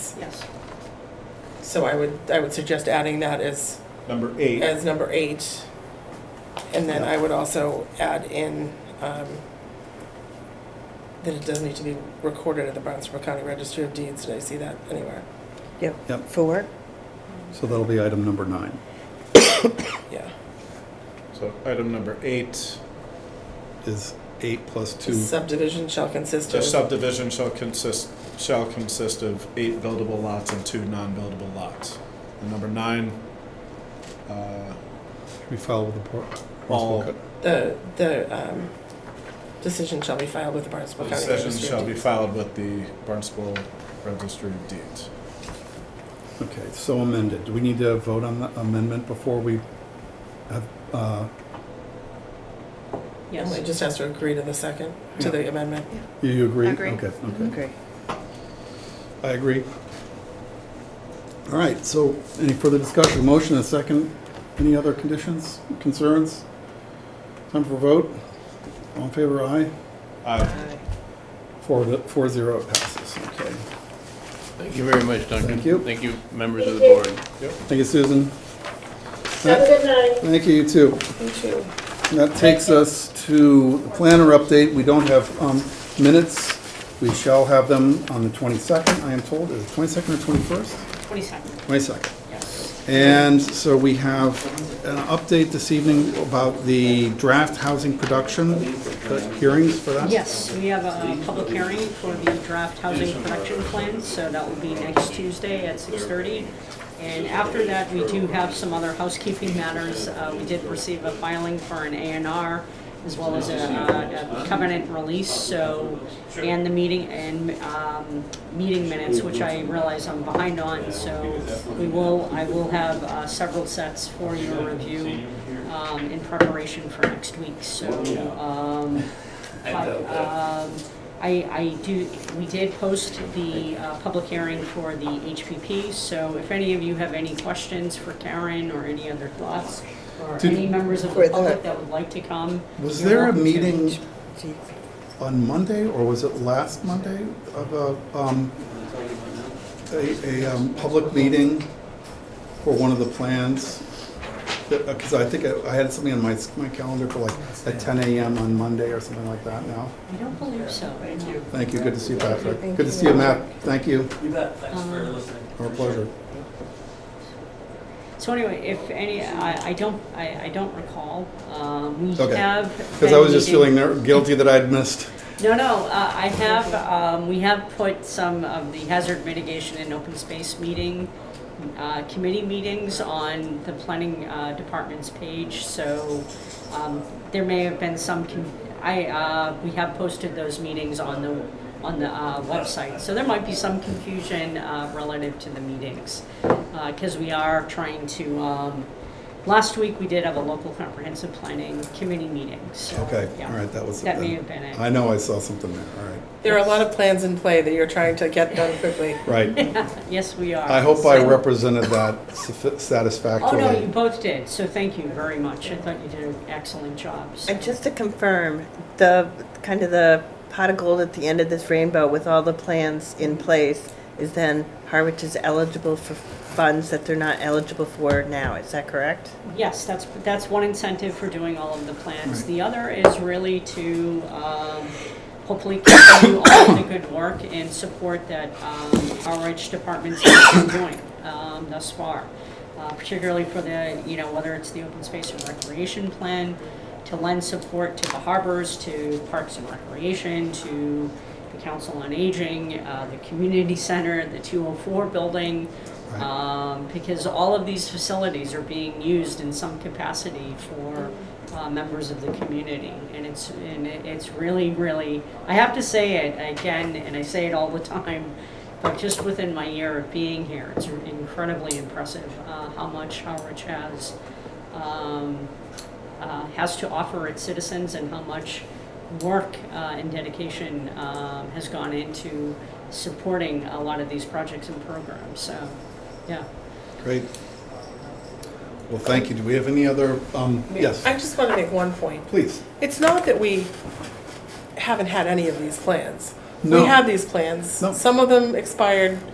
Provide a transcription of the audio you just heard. Yes. So I would, I would suggest adding that as, Number eight, as number eight. And then I would also add in, um, that it does need to be recorded at the Barnstable County Register of Deeds. Did I see that anywhere? Yep. Yep, Four? so that'll be item number nine. Yeah. so item number eight, Is eight plus The two, subdivision shall consist the of. subdivision shall consist, shall consist of eight buildable lots and two non-buildable lots. And number nine, uh, we file with the Por- All- Barnstable Co- The, the, um, decision shall be filed with the Barnstable County Register. decisions of shall be Deeds. filed with the Barnstable Registry of Deeds. Okay, so amended. Do we need to vote on the amendment before we have, uh, Yes. Emily just has to agree to the second, to the amendment. you- you agree? Agree. Okay, okay. Okay. I agree. All right, so any further discussion? Motion and second. Any other conditions, concerns? Time for vote. All in favor, aye? Uh, Four, four zero, it passes. Okay. Thank you very much, Duncan. Thank you. Thank you, members of the board. Thank you, Susan. Have a good night. Thank you, you too. Me too. And That takes us to the planner update. We don't have um, minutes. We shall have them on the 22nd, I am told. Is it 22nd or 21st? Twenty-second, 22nd. yes. And so we have an update this evening about the draft housing production the hearings for that? Yes, we have a public hearing for the draft housing production plan, so that will be next Tuesday at 6:30. And after that, we do have some other housekeeping matters. Uh, We did receive a filing for an A and R as well as a uh, a covenant release, so, and the meeting, and um, meeting minutes, which I realize I'm behind on, so we will, I will have uh, several sets for your review um, in preparation for next week, so um, but, um, I, I do, we did post the, uh, public hearing for the HPP, so if any of you have any questions for Karen or any other thoughts, or Did- any members of For the the- public that would like to come. Was you're there a welcome to. meeting on Monday, or was it last Monday, of a, um, a, a, um, public meeting for one of the plans? Because I think I I had something on my, my calendar for like at ten AM on Monday or something like that now. I don't believe so. Thank you. Thank you, good to see you, Patrick. Thank Good to see you. you, Matt. Thank you, You bet, thanks for Um, listening. our pleasure. So anyway, if any, I, I don't, I, I don't recall, um, we Okay. have. Because I been was just feeling meeting- ner- guilty that I'd missed. No, no, uh, I have, um, we have put some of the hazard mitigation and open space meeting, uh, committee meetings on the planning uh, department's page, so um, there may have been some, com- I, uh, we have posted those meetings on the, on the uh, website, so there might be some confusion uh, relative to the meetings, because we are trying to, um, last week, we did have a local comprehensive planning committee meeting, so. Okay, yeah. all right, that was it That may then. have been it. I know I saw something there, all right. There are a lot of plans in play that you're trying to get done quickly. Right. Yes, we are. I hope I So- represented that satisf- Oh, satisfactorily. no, you both did, so thank you very much. I thought you did an excellent job. so- And just to confirm, the, kind of the pot of gold at the end of this rainbow with all the plans in place is then Harwich is eligible for funds that they're not eligible for now, is that correct? Yes, that's, that's one incentive for doing all of the plans. The other is really to um, hopefully continue all of the good work and support that um, our rich departments have been doing um, thus far, Uh, particularly for the, you know, whether it's the open space and recreation plan, to lend support to the harbors, to parks and recreation, to the council on aging, uh, the community center, the 204 building, Right. um, because all of these facilities are being used in some capacity for uh, members of the community, and it's and it- it's really really I have to say it again, and I say it all the time, but just within my year of being here, it's incredibly impressive uh, how much Howard has. Um, uh, has to offer its citizens and how much work uh, and dedication um, has gone into supporting a lot of these projects and programs. So, yeah. Great. Well, thank you. Do we have any other, um, yes, I just want to make one point. please. It's not that we haven't had any of these plans. No. We have these plans. No. Some of them expired